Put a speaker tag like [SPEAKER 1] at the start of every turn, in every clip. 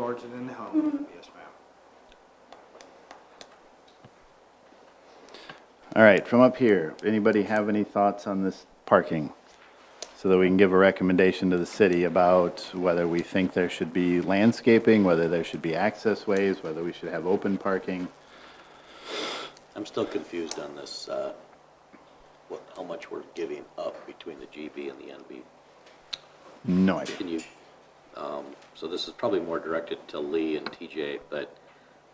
[SPEAKER 1] lodging in the home. Yes, ma'am.
[SPEAKER 2] All right, from up here, anybody have any thoughts on this parking? So that we can give a recommendation to the city about whether we think there should be landscaping, whether there should be access ways, whether we should have open parking.
[SPEAKER 3] I'm still confused on this, uh, what, how much we're giving up between the GB and the NB.
[SPEAKER 2] No idea.
[SPEAKER 3] Can you, um, so this is probably more directed to Lee and TJ, but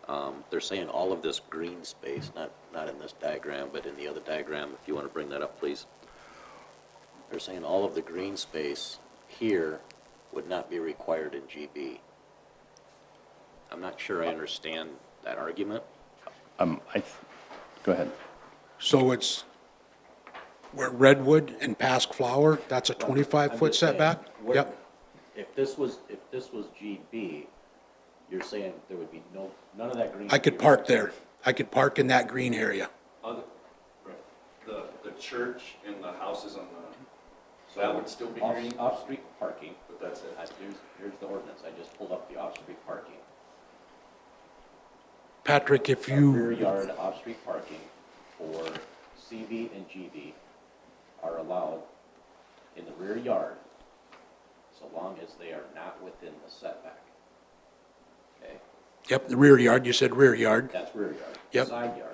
[SPEAKER 3] um, they're saying all of this green space, not, not in this diagram, but in the other diagram, if you want to bring that up, please. They're saying all of the green space here would not be required in GB. I'm not sure I understand that argument.
[SPEAKER 2] Um, I, th- go ahead.
[SPEAKER 4] So it's where redwood and pasque flower, that's a
[SPEAKER 3] I'm
[SPEAKER 4] 25-foot
[SPEAKER 3] just saying,
[SPEAKER 4] setback?
[SPEAKER 3] we're-
[SPEAKER 4] Yep,
[SPEAKER 3] If this was, if this was GB, you're saying there would be no, none of that green.
[SPEAKER 4] I could park there. I could park in that green area.
[SPEAKER 5] Other, right, the, the church and the houses on the, so that would still be
[SPEAKER 3] Off-
[SPEAKER 5] green,
[SPEAKER 3] Off-street parking,
[SPEAKER 5] but that's it.
[SPEAKER 3] I- here's, here's the ordinance, I just pulled up the off-street parking.
[SPEAKER 4] Patrick, if
[SPEAKER 3] Rear
[SPEAKER 4] you,
[SPEAKER 3] yard off-street parking for CB and GB are allowed in the rear yard so long as they are not within the setback. Okay?
[SPEAKER 4] yep, the rear yard, you said rear yard.
[SPEAKER 3] That's rear yard.
[SPEAKER 4] Yep.
[SPEAKER 3] Side yard.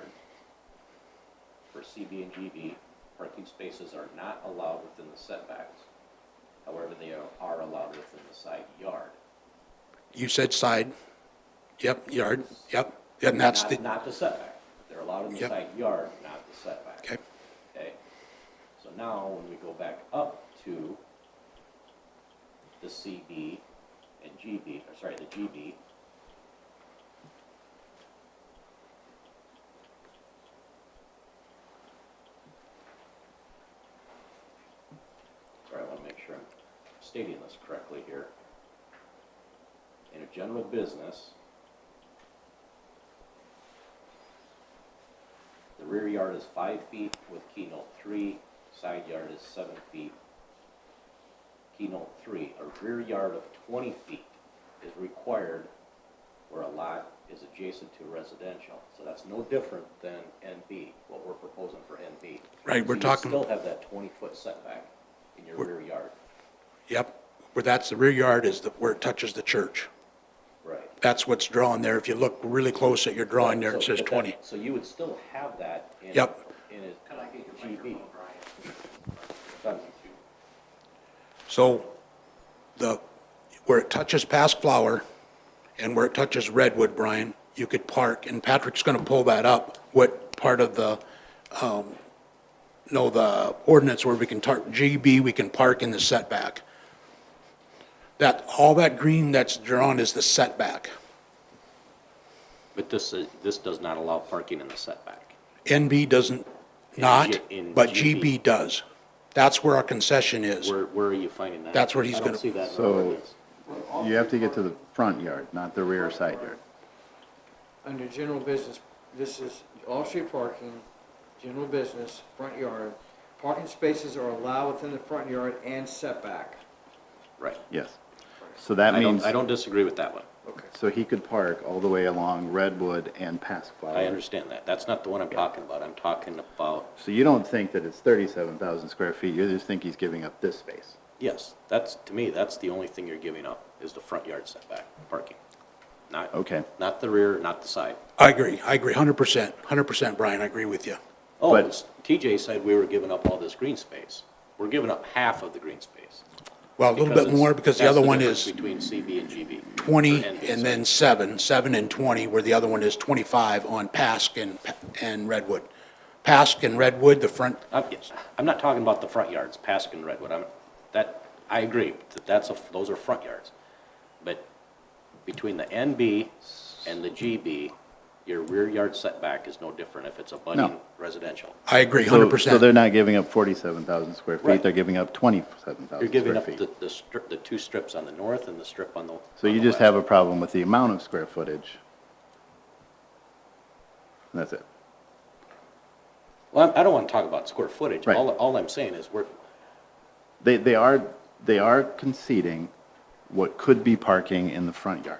[SPEAKER 3] For CB and GB, parking spaces are not allowed within the setbacks. However, they are- are allowed within the side yard.
[SPEAKER 4] You said side. Yep, yard, yep. And that's
[SPEAKER 3] Not-
[SPEAKER 4] the,
[SPEAKER 3] Not the setback. They're allowed in the
[SPEAKER 4] Yep.
[SPEAKER 3] side yard, not the setback.
[SPEAKER 4] okay,
[SPEAKER 3] Okay? So now, when we go back up to the CB and GB, or sorry, the GB. Sorry, I want to make sure I'm stating this correctly here. In a general business, The rear yard is five feet with keynote three, side yard is seven feet. Keynote three, a rear yard of twenty feet is required where a lot is adjacent to residential. So that's no different than NB, what we're proposing for NB.
[SPEAKER 4] Right,
[SPEAKER 3] So
[SPEAKER 4] we're
[SPEAKER 3] you
[SPEAKER 4] talking-
[SPEAKER 3] Still have that twenty-foot setback in your rear yard.
[SPEAKER 4] yep. Where that's, the rear yard is the- where it touches the church.
[SPEAKER 3] Right.
[SPEAKER 4] That's what's drawn there. If you look really close at your drawing there, it
[SPEAKER 3] So-
[SPEAKER 4] says
[SPEAKER 3] but that-
[SPEAKER 4] 20.
[SPEAKER 3] So you would still have that in.
[SPEAKER 4] Yep.
[SPEAKER 3] In a GB. Done.
[SPEAKER 4] So the, where it touches past Flower and where it touches Redwood, Brian, you could park, and Patrick's going to pull that up, what part of the, um, no, the ordinance where we can tar, GB, we can park in the setback. That, all that green that's drawn is the setback.
[SPEAKER 3] But this, is- this does not allow parking in the setback.
[SPEAKER 4] NB doesn't, not,
[SPEAKER 3] in
[SPEAKER 4] but
[SPEAKER 3] GB.
[SPEAKER 4] GB does. That's where our concession is.
[SPEAKER 3] Where, where are you finding that?
[SPEAKER 4] That's where he's gonna-
[SPEAKER 3] I don't see that in the
[SPEAKER 2] So-
[SPEAKER 3] ordinance.
[SPEAKER 2] You have to get to the front yard, not the rear side yard.
[SPEAKER 1] Under general business, this is off-street parking, general business, front yard. Parking spaces are allowed within the front yard and setback.
[SPEAKER 3] Right.
[SPEAKER 2] Yes. So that
[SPEAKER 3] I
[SPEAKER 2] means,
[SPEAKER 3] don't, I don't disagree with that one.
[SPEAKER 1] Okay.
[SPEAKER 2] so he could park all the way along Redwood and past Flower.
[SPEAKER 3] I understand that. That's not the one I'm talking about. I'm talking about,
[SPEAKER 2] So you don't think that it's thirty-seven thousand square feet, you just think he's giving up this space?
[SPEAKER 3] yes, that's, to me, that's the only thing you're giving up, is the front yard setback, parking. Not,
[SPEAKER 2] Okay.
[SPEAKER 3] not the rear, not the side.
[SPEAKER 4] I agree, I agree, 100%, 100%, Brian, I agree with you.
[SPEAKER 3] Oh,
[SPEAKER 2] But-
[SPEAKER 3] it's- TJ said we were giving up all this green space. We're giving up half of the green space.
[SPEAKER 4] Well, a little bit more because the
[SPEAKER 3] that's
[SPEAKER 4] other one
[SPEAKER 3] difference
[SPEAKER 4] is
[SPEAKER 3] Between CB and GB. or
[SPEAKER 4] 20
[SPEAKER 3] NB,
[SPEAKER 4] and
[SPEAKER 3] sorry.
[SPEAKER 4] then 7, 7 and 20, where the other one is 25 on Pasque and, and Redwood. Pasque and Redwood, the front,
[SPEAKER 3] I'm, I'm not talking about the front yards, Pasque and Redwood, I'm, that, I agree, that that's a, those are front yards. But between the NB and the GB, your rear yard setback is no different if it's a budding
[SPEAKER 2] No.
[SPEAKER 3] residential.
[SPEAKER 4] I agree
[SPEAKER 2] So- So they're
[SPEAKER 4] 100%.
[SPEAKER 2] not giving up forty-seven thousand square
[SPEAKER 3] Right.
[SPEAKER 2] feet, they're giving up twenty-seven
[SPEAKER 3] You're
[SPEAKER 2] thousand
[SPEAKER 3] giving
[SPEAKER 2] square
[SPEAKER 3] up the,
[SPEAKER 2] feet.
[SPEAKER 3] the strip, the two strips on the north and the strip on the.
[SPEAKER 2] So
[SPEAKER 3] on
[SPEAKER 2] you
[SPEAKER 3] the
[SPEAKER 2] just have a
[SPEAKER 3] west.
[SPEAKER 2] problem with the amount of square footage. And that's it.
[SPEAKER 3] Well, I I don't wanna talk about square footage,
[SPEAKER 2] Right.
[SPEAKER 3] all, all I'm saying is we're,
[SPEAKER 2] They, they are, they are conceding what could be parking in the front yard.